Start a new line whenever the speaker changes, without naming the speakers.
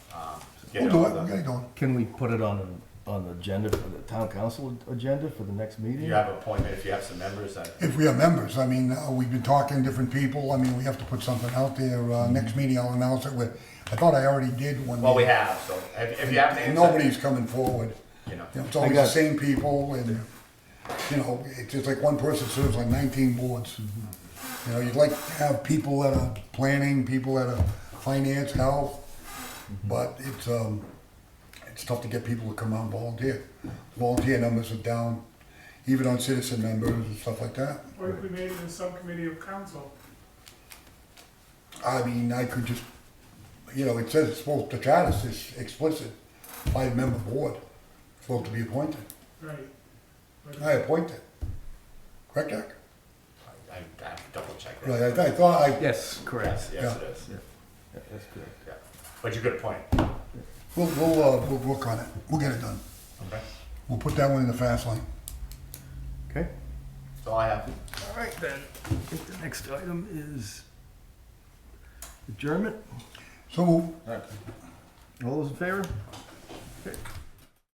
We'll
um, Get
do
on
it, we'll
the-
get it going.
Can we put it on, on the agenda, for the town council agenda for the next meeting?
You have an appointment, if you have some members, I,
If we are members, I mean, uh, we've been talking to different people, I mean, we have to put something out there, uh, next meeting I'll announce it with, I thought I already did when.
Mm-hmm. well, we have, so if, if you have names. I-
Nobody's coming forward,
You know,
you know, it's
I
always
got
the
it.
same people and, you know, it's just like one person serves on nineteen boards. You know, you'd like to have people that are planning, people that are finance, health, but it's, um, it's tough to get people to come out and volunteer. Volunteer numbers are down, even on citizen members and stuff like that.
Or if we made it a subcommittee of council,
I mean, I could just, you know, it says it's supposed, the charter is explicit, five-member board, supposed to be appointed.
right? But-
I appoint it. Correct, Eric?
I, I have to double check.
Right,
that.
I, I thought I,
Yes,
Yes,
correct.
yes, it is,
Yeah, That's good.
yeah. But you could appoint,
we'll, we'll, uh, we'll work on it. We'll get it done.
okay?
We'll put that one in the fast lane.
Okay.
That's all I have.
All right, then. I think the next item is adjournment.
So move.
All those in favor? Okay.